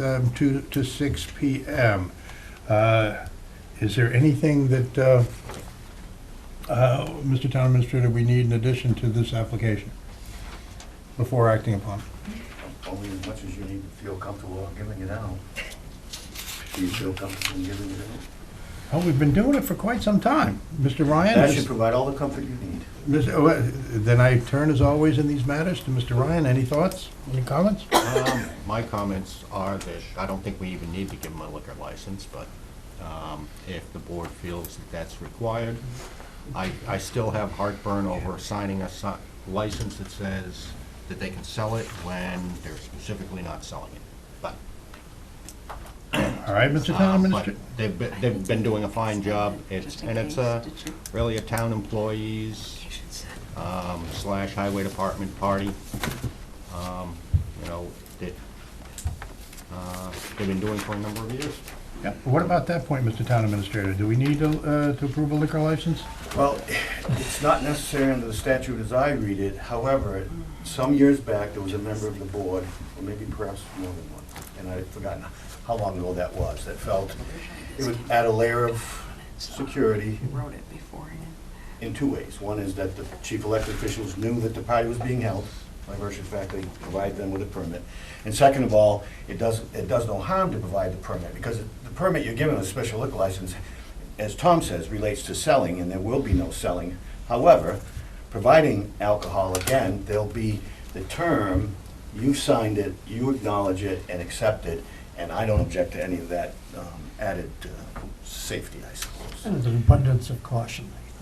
um, 2 to 6 PM. Uh, Is there anything that, uh, uh, Mr. Town Administrator, we need in addition to this application before acting upon? Only as much as you need to feel comfortable giving it out. Do you feel comfortable giving it out? Oh, we've been doing it for quite some time. Mr. Ryan? That is- should provide all the comfort you need. Mr. oh, uh, Then I turn, as always, in these matters to Mr. Ryan. Any thoughts, any comments? Um, My comments are that I don't think we even need to give them a liquor license, but um, if the board feels that that's required, I, I still have heartburn over signing a si- license that says that they can sell it when they're specifically not selling it. But, All right, Mr. Town Ah, uh, but Administrator? they've, been- they've been doing a fine job, it's, and it's uh, really a town employees um, slash highway department party. Um, You know, that, uh, they've been doing for a number of years. Yeah, What about that point, Mr. Town Administrator? Do we need to uh, to approve a liquor license? Well, it's not necessary under the statute as I read it. However, some years back, there was a member of the board, or maybe perhaps more than one, and I've forgotten how long ago that was, that felt it would add a layer of security Wrote it beforehand. in two ways. One is that the chief elected officials knew that the party was being held, by virtue of the fact they provided them with a permit. And second of all, it does, it does no harm to provide the permit, because the permit you're given, a special liquor license, as Tom says, relates to selling, and there will be no selling. However, providing alcohol, again, there'll be the term, you signed it, you acknowledge it and accept it, and I don't object to any of that um, added uh, safety, I suppose. And an abundance of caution, I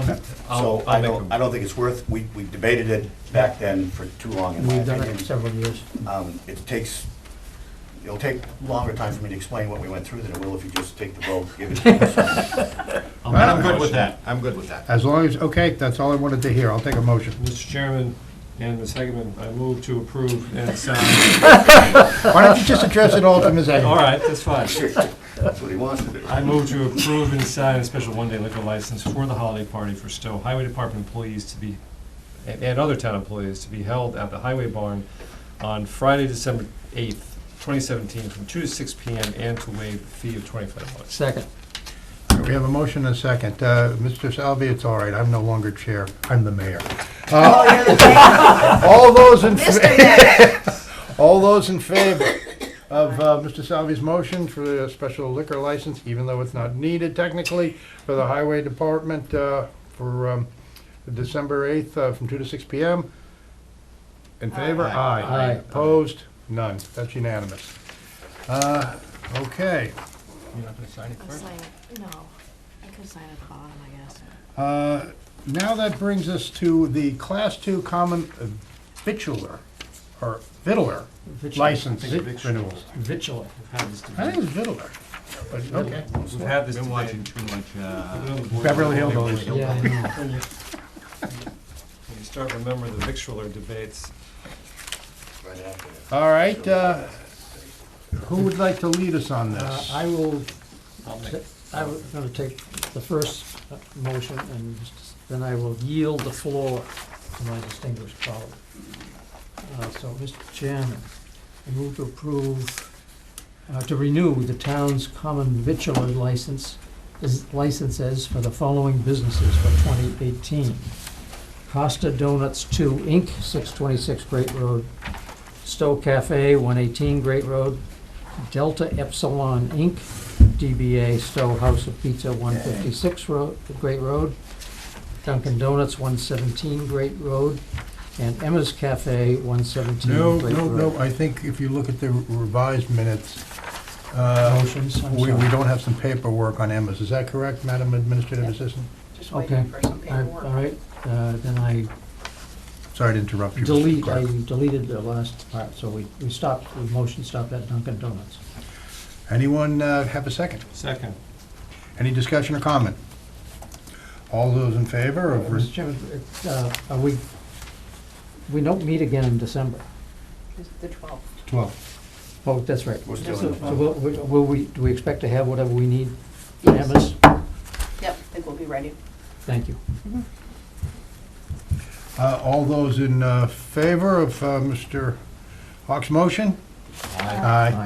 think. I'll- I'll- So I I'll make don't, a- I don't think it's worth, we, we debated it back then for too long, in my We've done it for opinion. several years. Um, It takes, it'll take longer time for me to explain what we went through than it will if you just take the vote, give it to us. And I'm good with that, I'm good with that. As long as, okay, that's all I wanted to hear. I'll take a motion. Mr. Chairman and Ms. Heckman, I move to approve and sign. Why don't you just address it all to Ms. Agnew? All right, that's fine. That's what he wants to do. I move to approve and sign a special one-day liquor license for the holiday party for Stowe Highway Department employees to be, and and other town employees to be held at the Highway Barn on Friday, December eighth, twenty seventeen, from two to six P M. and to waive the fee of twenty-five dollars. Second. We have a motion and a second. Uh, Mr. Salvi, it's all right, I'm no longer chair, I'm the mayor. Uh, All those in, all those in favor of uh, Mr. Salvi's motion for a special liquor license, even though it's not needed technically, for the highway department uh, for um, December 8th uh, from 2 to 6 p.m. In favor? Aye. Aye. Opposed? None. That's unanimous. Uh, Okay. You're not gonna sign it I'm signing, no, I could sign at the bottom, I guess. Uh, Now that brings us to the Class Two Common Vitular, or Vitular Vitu- license I think it's renewal. Vigilant. We've had this I think debate. it's Vitular, but okay. We've had this Been debate. watching too much, uh, Put it on the board. Beverly Hills. Yeah, I know. When you when you start remembering the victualler debates, Right after that. All right, uh, who would like to lead us on Uh, this? I will, I'll make. ta- I'm going to take the first uh, motion, and then I will yield the floor to my distinguished colleague. Uh, So, Mr. Chairman, I move to approve, uh, to renew the town's common vitular license, is- licenses for the following businesses for 2018. Costa Donuts 2 Inc., 626 Great Road, Stowe Cafe, 118 Great Road, Delta Epsilon Inc., DBA Stowe House of Pizza, 156 Road, Great Road, Dunkin' Donuts, 117 Great Road, and Emma's Cafe, 117 No, Great no, Road. no, I think if you look at the revised minutes, uh, Motions, I'm we we sorry. don't have some paperwork on Emma's. Is that correct, Madam Administrative Assistant? Just Okay. waiting for some I- paperwork. All right, uh, then I Sorry to interrupt you, Mr. delete, I Clerk. deleted the last part, so we, we stopped, the motion stopped at Dunkin' Donuts. Anyone uh, have a second? Second. Any discussion or comment? All those in favor of Mr. Chairman, uh, are we, we don't meet again in December. It's The twelfth. 12? Oh, that's right. We're So still in the will, will we, do we expect to have whatever we need from Yes. Emma's? Yep, I think we'll be ready. Thank you. Uh, All those in uh, favor of uh, Mr. Hawks' motion? Aye. Aye.